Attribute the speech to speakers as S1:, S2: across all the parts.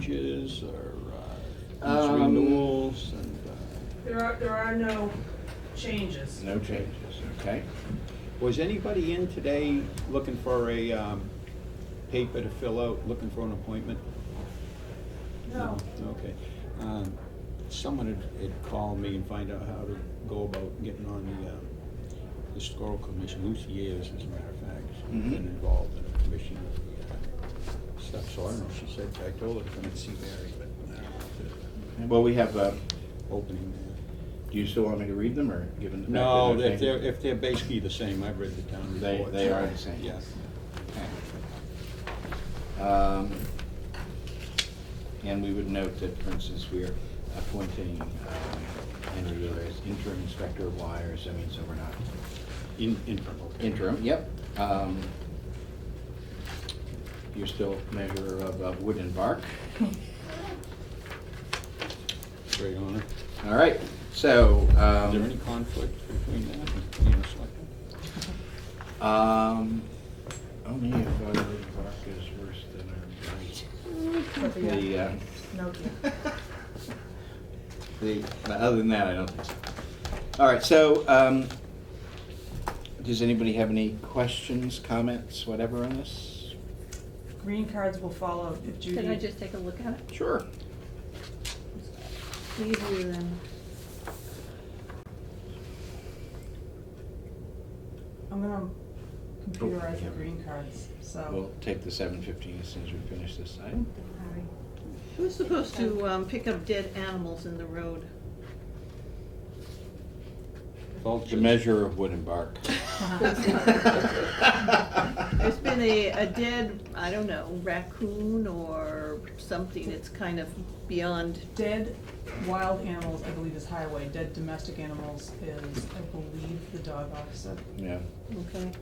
S1: changes or uh, these
S2: Um,
S1: renewals and, uh,
S3: There are, there are no changes.
S2: No changes, okay.
S1: was anybody in today looking for a um, paper to fill out, looking for an appointment?
S3: No.
S1: Okay. Um, Someone had- had called me and find out how to go about getting on the um, historical commission. Lucy Ayers, as a matter of fact, has been
S2: Mhm.
S1: involved in the commission of the uh, stuff. So I don't know, she said, I told her to come and see Mary, but I don't know if
S2: Well, we have, uh,
S1: there's an opening there.
S2: do you still want me to read them or give them back?
S1: No,
S2: They're
S1: if
S2: the
S1: they're,
S2: same?
S1: if they're basically the same, I've read the town
S2: They-
S1: reports.
S2: they are the same.
S1: Yes.
S2: Okay. Um, And we would note that, for instance, we are appointing um, Henry Wheeler as interim inspector of wires. I mean, so we're not
S1: In, interim, okay.
S2: interim, yep. Um, You're still measurer of uh, wood and bark.
S1: Great honor.
S2: All right, so.
S1: Is there
S2: um,
S1: any conflict between that and being a selectman?
S2: Um, only if our bark is worse than our bite.
S4: Mm-hmm.
S3: But the, uh,
S2: The, uh,
S3: No,
S2: the, but other than that, I don't think so. All right, so, um, does anybody have any questions, comments, whatever on this?
S3: green cards will follow if Judy.
S5: Can I just take a look at it?
S2: Sure.
S5: Leave you then.
S3: I'm gonna computerize
S2: yeah.
S3: the green cards,
S2: We'll
S3: so.
S2: take the seven fifteen as soon as we finish this item.
S4: Who's supposed to um, pick up dead animals in the road?
S2: The measure of wood and bark.
S4: There's been a, a dead, I don't know, raccoon or something, it's kind of beyond,
S3: Dead wild animals, I believe, is highway. Dead domestic animals is, I believe, the dog officer.
S2: Yeah.
S4: okay.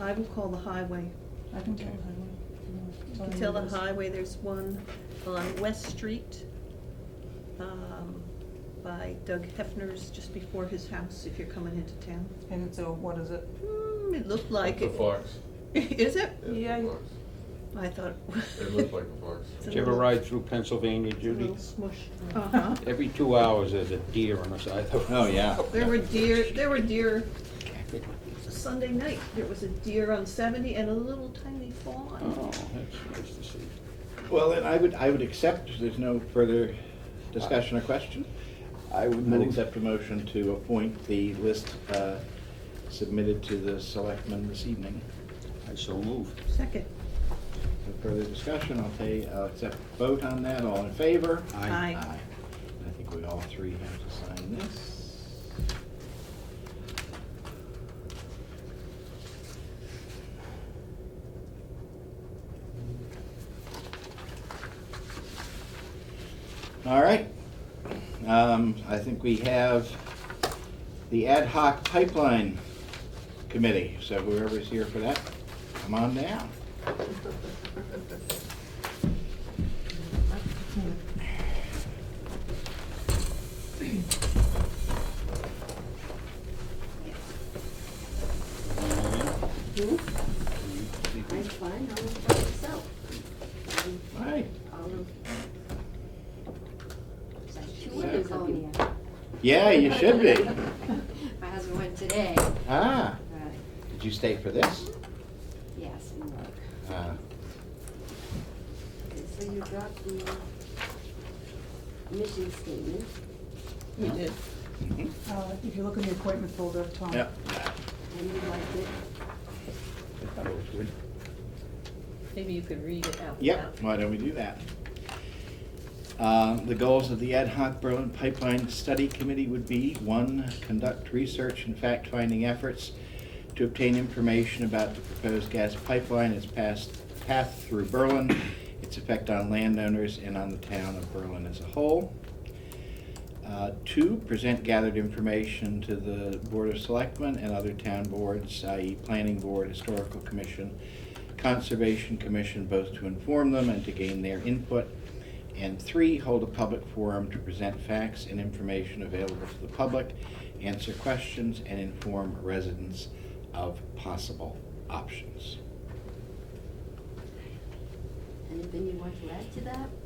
S4: I will call the highway.
S3: I can tell the
S2: Okay.
S3: highway.
S4: You can tell the highway, there's one on West Street um, by Doug Hefner's, just before his house, if you're coming into town.
S3: And so what is it?
S4: Hmm, it looked like.
S6: The
S4: it-
S6: fox.
S4: Is it?
S3: Yeah,
S6: It
S3: you-
S6: looks-
S4: I thought.
S6: it looked like a fox.
S4: It's a
S1: Did you ever
S4: little-
S1: ride through Pennsylvania,
S4: It's a
S1: Judy?
S4: little smush. Uh-huh.
S1: Every two hours, there's a deer on the side of the
S2: Oh, yeah.
S4: There were deer, there were deer, Sunday night, there was a deer on seventy and a little tiny fawn.
S1: Oh, that's nice to see.
S2: Well, then I would, I would accept, if there's no further discussion or question. I would
S1: move-
S2: accept a motion to appoint the list uh, submitted to the selectmen this evening.
S1: I so move.
S4: Second,
S2: No further discussion, I'll pay, I'll accept a vote on that, all in favor?
S4: Aye.
S2: I think we all three have to sign this. All right, um, I think we have the ad hoc pipeline committee, so whoever's here for that, come on down. Hmm?
S5: I'm fine, I'll look for myself. Um,
S2: All right,
S5: I'll look. It's like two windows on me.
S2: yeah, you should be.
S5: My husband went today,
S2: Ah,
S5: but
S2: did you stay for this?
S5: yes, and look.
S2: Ah,
S5: Okay, So you got the uh, mission statement.
S4: we did.
S3: uh, if you look in the appointment folder, Tom.
S2: yep.
S5: And you liked it.
S1: I thought it was good.
S4: Maybe you could read it out.
S2: Yep, why don't we do that? Uh, The goals of the Ad hoc Berlin Pipeline Study Committee would be, one, conduct research and fact-finding efforts to obtain information about the proposed gas pipeline, its past- path through Berlin, its effect on landowners and on the town of Berlin as a whole. Uh, Two, present gathered information to the Board of Selectmen and other town boards, i.e. Planning Board, Historical Commission, Conservation Commission, both to inform them and to gain their input. And three, hold a public forum to present facts and information available to the public, answer questions, and inform residents of possible options.
S5: Anything you want to add to that?